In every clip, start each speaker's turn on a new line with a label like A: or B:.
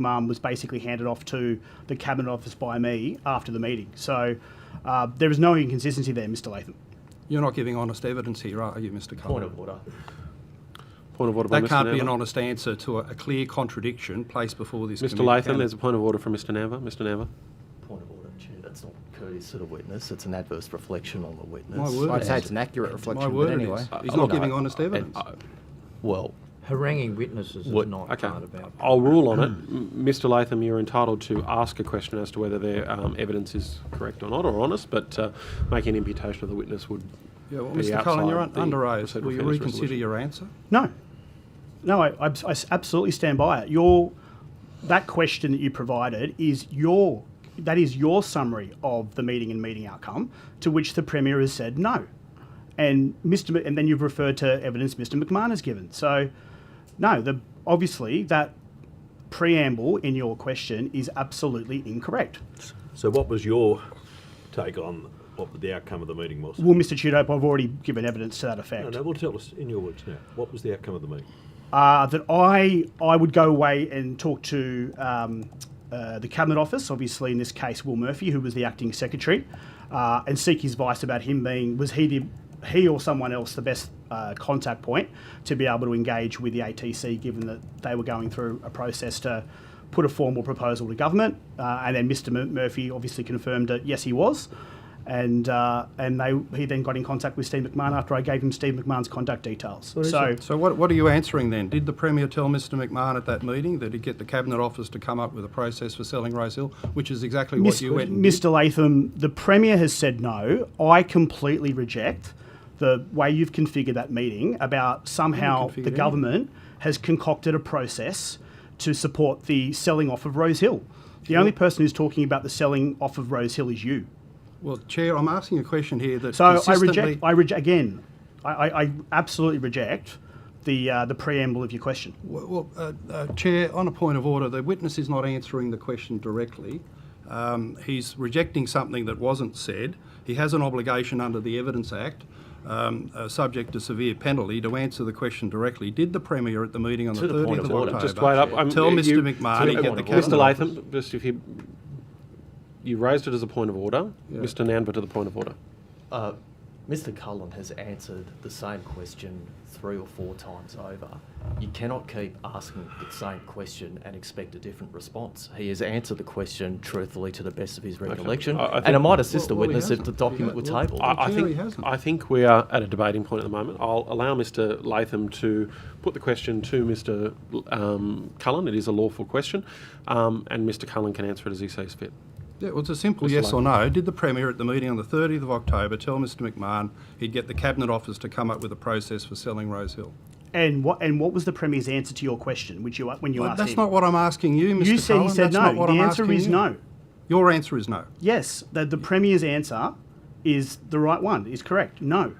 A: mum was basically handed off to the cabinet office by me after the meeting. So uh, there is no inconsistency there, Mr. Latham.
B: You're not giving honest evidence here, are you, Mr
C: Point
B: Cullen?
C: of order.
D: Point of order by
B: That
D: Mr.
B: can't be an
D: Namber.
B: honest answer to a a clear contradiction placed before this
D: Mr.
B: committee.
D: Latham,
B: Can-
D: there's a point of order from Mr. Namber. Mr. Namber.
C: Point of order, Chair. That's not courteous to the witness. It's an adverse reflection on the witness.
B: My word.
E: I'd say it's an accurate
B: My
E: reflection, but
B: word it
E: anyway.
B: is. He's
D: I-
B: not
D: look,
B: giving
D: I-
B: honest
F: Uh,
D: I-
B: evidence.
D: I-
C: Well,
F: Haranguing witnesses is
C: What-
F: not
D: Okay,
F: part of our.
D: I'll rule on it. M- Mr Latham, you're entitled to ask a question as to whether their um, evidence is correct or not, or honest, but uh, making an imputation of the witness would
B: Yeah, well,
D: be
B: Mr Cullen, you're un-
D: outside the
B: under oath.
D: procedural
B: Will you
D: fairness
B: reconsider
D: resolution.
B: your answer?
A: No, no, I, I abs- I s- absolutely stand by it. Your that question that you provided is your that is your summary of the meeting and meeting outcome to which the premier has said no, and Mr. Mc- and then you've referred to evidence Mr. McMahon has given. So no, the obviously that preamble in your question is absolutely incorrect.
G: So what was your take on what the outcome of the meeting was?
A: Well, Mr. Tudope, I've already given evidence to that effect.
G: No, no, well, tell us in your words now. What was the outcome of the meeting?
A: uh, that I I would go away and talk to um, uh, the cabinet office, obviously in this case Will Murphy, who was the acting secretary, uh, and seek his advice about him being was he the he or someone else the best uh, contact point to be able to engage with the ATC, given that they were going through a process to put a formal proposal to government, uh, and then Mr. M- Murphy obviously confirmed that yes he was. And uh, and they he then got in contact with Steve McMahon after I gave him Steve McMahon's contact details. so
B: So what, what are you answering then? Did the Premier tell Mr McMahon at that meeting that he'd get the Cabinet Office to come up with a process for selling Rose Hill, which is exactly what
A: Mis-
B: you went and did?
A: Mr. Latham, the Premier has said no. I completely reject the way you've configured that meeting about somehow
B: configured
A: the
B: it. eh?
A: government has concocted a process to support the selling off of Rose Hill. The only person who's talking about the selling off of Rose Hill is you.
B: Well, Chair, I'm asking a question here that
A: So I
B: consistently...
A: reject. I reject again. I, I, I absolutely reject the uh, the preamble of your question.
B: Well, well, uh, uh, Chair, on a point of order, the witness is not answering the question directly. Um, He's rejecting something that wasn't said. He has an obligation under the Evidence Act, um, uh, subject to severe penalty, to answer the question directly. Did the Premier at the meeting on the
C: To the point
B: 30th of
C: of order.
B: October...
D: Just wait up. I'm-
B: Tell
D: you-
B: Mr McMahon
C: to
B: to get the
C: the point of order.
B: Cabinet Office...
D: Mr Latham, just if you, you raised it as a point of order. Mr Namber to the point of order.
C: uh, Mr. Cullen has answered the same question three or four times over. You cannot keep asking the same question and expect a different response. He has answered the question truthfully to the best of his recollection,
D: I- I
C: and
D: think-
C: it might assist
B: Well, well,
C: the
B: he
C: witness if the
B: hasn't.
C: document
B: He
C: were
B: ha- well,
C: tabled.
B: I-
D: I, I
B: Clearly
D: think
B: hasn't.
D: I think we are at a debating point at the moment. I'll allow Mr. Latham to put the question to Mr. Um, Cullen. It is a lawful question, um, and Mr. Cullen can answer it as he sees fit.
B: Yeah, well, it's a simple yes or no. Did the Premier at the meeting on the 30th of October tell Mr McMahon he'd get the Cabinet Office to come up with a process for selling Rose Hill?
A: And what and what was the Premier's answer to your question? Which you when you
B: Well,
A: asked
B: That's
A: him?
B: not what I'm asking you, Mr
A: you said
B: Cullen.
A: he said
B: That's not
A: no.
B: what
A: The
B: I'm
A: answer
B: asking
A: is
B: you.
A: no.
B: Your answer is no.
A: Yes, the, the Premier's answer is the right one, is correct. No.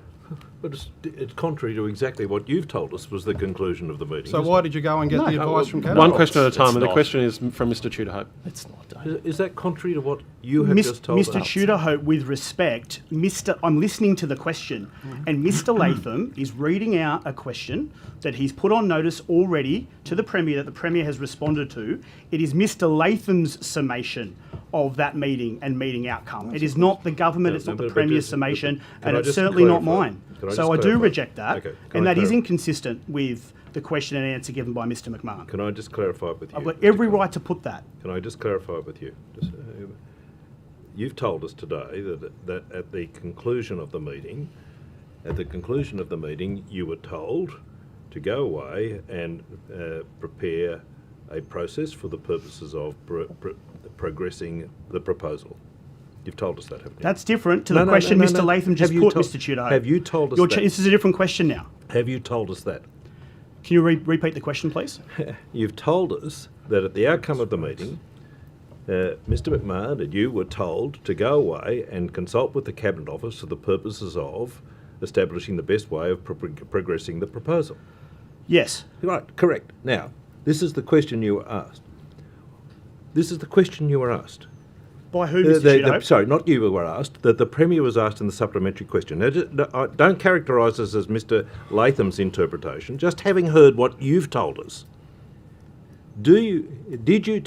G: But it's, it's contrary to exactly what you've told us was the conclusion of the meeting.
B: So
G: isn't
B: why did you go and get the advice from Cabinet?
D: One
C: No,
D: question at a
C: it's-
D: time,
C: it's
D: and the
C: not.
D: question is m- from Mr. Tudor Hope.
C: It's not done.
G: it? Is, is that contrary to what you have
A: Mis-
G: just told
A: Mr.
G: us?
A: Tudorhope, with respect, Mr. I'm listening to the question, and Mr. Latham is reading out a question that he's put on notice already to the Premier that the Premier has responded to. It is Mr. Latham's summation of that meeting and meeting outcome. it is not the government.
G: No,
A: it's
G: no,
A: not
G: but-
A: the
G: but
A: Premier's
G: just-
A: summation,
G: but- can
A: and
G: I
A: it's
G: just
A: certainly not
G: clarify?
A: mine.
G: Can I
A: so
G: just
A: I do
G: clarify?
A: reject that,
G: Okay, can
A: and
G: I
A: that is
G: clarify?
A: inconsistent with the question and answer given by Mr. McMahon.
G: Can I just clarify with you?
A: I've got
G: Mr.
A: Uh, every
G: Cullen?
A: right to put that.
G: Can I just clarify with you? Just, uh, You've told us today that, that at the conclusion of the meeting, at the conclusion of the meeting, you were told to go away and uh, prepare a process for the purposes of pro- pro- progressing the proposal. You've told us that, haven't you?
A: That's different to
G: No,
A: the
G: no,
A: question
G: no, no,
A: Mr.
G: no.
A: Latham just
G: Have you
A: put,
G: tol-
A: Mr. Tudor.
G: have you told us
A: Your ch-
G: that?
A: This is a different question now.
G: Have you told us that?
A: Can you re- repeat the question, please?
G: You've told us that at the outcome of the meeting, uh, Mr. McMahon and you were told to go away and consult with the Cabinet Office for the purposes of establishing the best way of pro- progressing the proposal.
A: Yes.
G: Right, correct. Now, this is the question you were asked. This is the question you were asked.
A: By who,
G: Uh,
A: Mr.
G: the-
A: Tudor?
G: the- sorry, not you were asked, that the Premier was asked in the supplementary question. Now, ju- no, I- don't characterise this as Mr Latham's interpretation, just having heard what you've told us. Do you, did you